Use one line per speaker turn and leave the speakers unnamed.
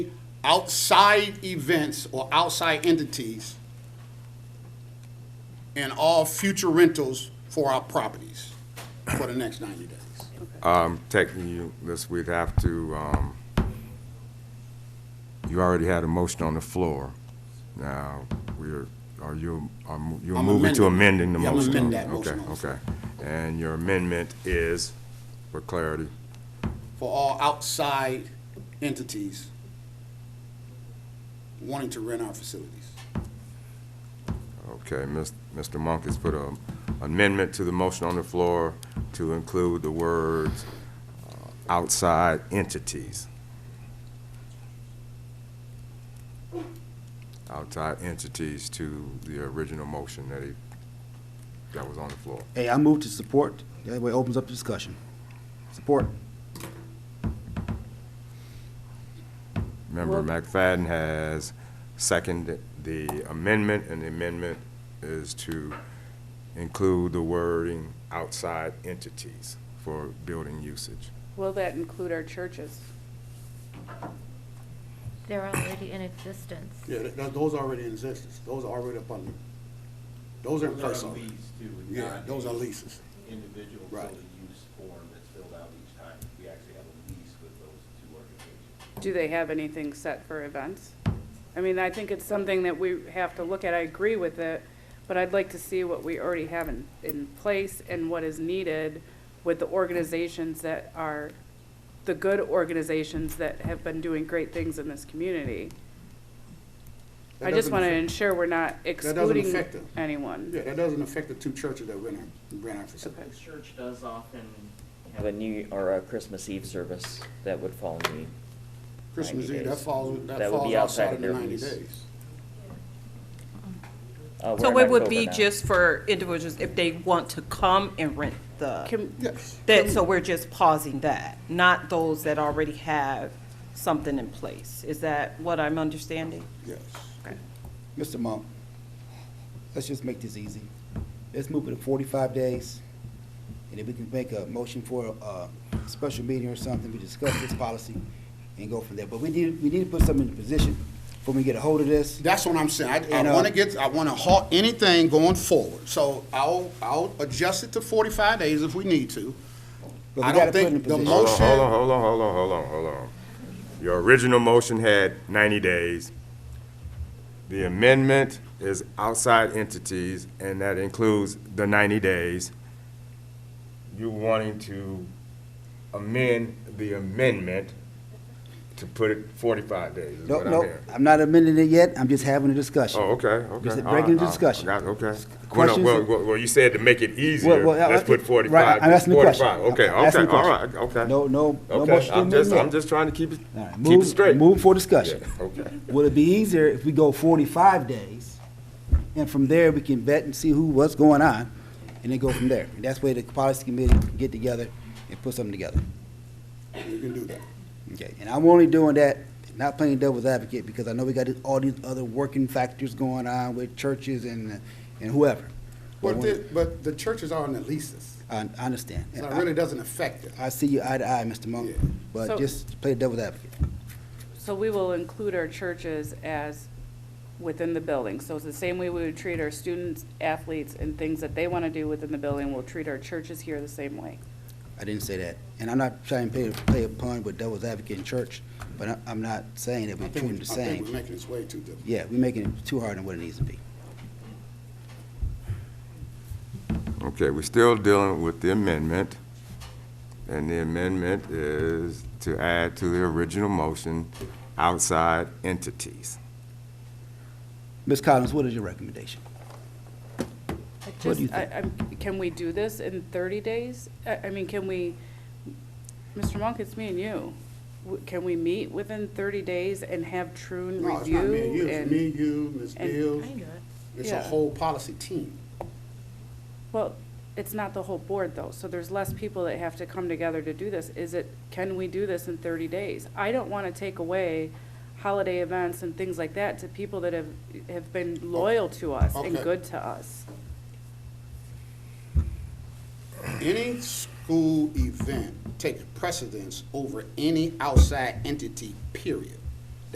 outside events or outside entities and all future rentals for our properties for the next 90 days.
Um, taking you, this, we'd have to, um, you already had a motion on the floor. Now, we're, are you, are mo- you're
I'm
moving to
amending.
amending the
Yeah, I'm
motion?
amend that motion
Okay,
also.
okay. And your amendment is, for clarity,
For all outside entities wanting to rent our facilities.
okay, Ms- Mr. Monk has put an amendment to the motion on the floor to include the words uh, outside entities. Outside entities to the original motion that he, that was on the floor.
Hey, I move to support. That way it opens up the discussion. Support.
Member McFadden has seconded the amendment, and the amendment is to include the wording outside entities for building usage.
Will that include our churches?
They're already in existence.
Yeah, th- th- those are already in existence. Those are already up under, those are in
Those are
person.
leads too, and
Yeah,
not
those are
a
leases.
Individual
Right.
fully used form that's filled out each time. We actually have a lease with those two organizations.
Do they have anything set for events? I mean, I think it's something that we have to look at. I agree with it, but I'd like to see what we already have in, in place and what is needed with the organizations that are, the good organizations that have been doing great things in this community.
That
I just
doesn't
want to
affect-
ensure we're not
doesn't
excluding
affect them.
anyone.
Yeah, that doesn't affect the two churches that rent our, rent our
The
facilities.
church does often have a New, or a Christmas Eve service that would fall in the
Christmas
90
Eve, that
days.
falls, that
That would
falls
be
outside of the
their
90
lease.
days.
Uh,
So
we're in
it would be
October now.
just for individuals if they want to come and rent the,
Can,
Yes.
that, so we're just pausing that, not those that already have something in place. Is that what I'm understanding?
Yes.
Mr. Monk, let's just make this easy. Let's move it to forty-five days. And if we can make a motion for a, a special meeting or something, we discuss this policy and go from there. But we need, we need to put something in position before we get a hold of this.
That's what I'm saying. I,
And,
I
uh,
want to get, I want to halt anything going forward. So I'll, I'll adjust it to 45 days if we need to.
But we
I don't
gotta put it
think
in
the
position.
mo-
Hold on,
Motion.
hold on, hold on, hold on, hold on, hold on. Your original motion had ninety days. The amendment is outside entities, and that includes the ninety days. You're wanting to amend the amendment to put it forty-five days, is
No,
what I'm
no,
hearing.
I'm not amending it yet. I'm just having a discussion.
Oh, okay, okay.
Just
All right,
breaking the
all right,
discussion.
got it, Okay. Well, no,
Questions?
well, well, well, you said to make it easier,
Well, well, I-
let's put
right,
forty-five.
I'm asking the question.
45. Okay,
I'm asking
okay,
the
all right,
question.
okay.
No, no, no
Okay,
motion
I'm
to
just,
amend
I'm
yet.
just trying to keep it,
All right,
keep it
move-
straight.
Move for discussion.
Yeah, Okay.
Would it be easier if we go forty-five days, and from there, we can vet and see who, what's going on, and then go from there? And that's where the policy committee can get together and put something together.
You can do that.
Okay, and I'm only doing that, not playing devil's advocate, because I know we got all these other working factors going on with churches and, and whoever. But
But
when-
the, but the churches are on the leases,
I, I understand.
so it
I-
really doesn't affect it.
I see you eye to eye, Mr. Monk,
Yeah.
but
So-
just play devil's advocate.
So we will include our churches as within the building. So it's the same way we would treat our students, athletes, and things that they want to do within the building, we'll treat our churches here the same way.
I didn't say that. And I'm not trying to play, play a pun with devil's advocate in church, but I, I'm not saying that
I
we treat
think,
them
we- I
the
think we're
same.
making this way too difficult.
Yeah, we're making it too hard on what it needs to be.
Okay, we're still dealing with the amendment, and the amendment is to add to the original motion, outside entities.
Ms. Collins, what is your recommendation?
I
What do you
just- I- I'm- Can we do this in 30 days? I I mean, can we, Mr. Monk, it's me and you. W- Can we meet within 30 days and have Trune
No, it's not me and you,
review?
it's me, you, Ms.
and-
Bills,
I knew it.
it's a
Yeah.
whole policy team.
Well, it's not the whole board, though, so there's less people that have to come together to do this. Is it, can we do this in thirty days? I don't want to take away holiday events and things like that to people that have, have been loyal to us and
Okay.
good to us.
Any school event takes precedence over any outside entity, period.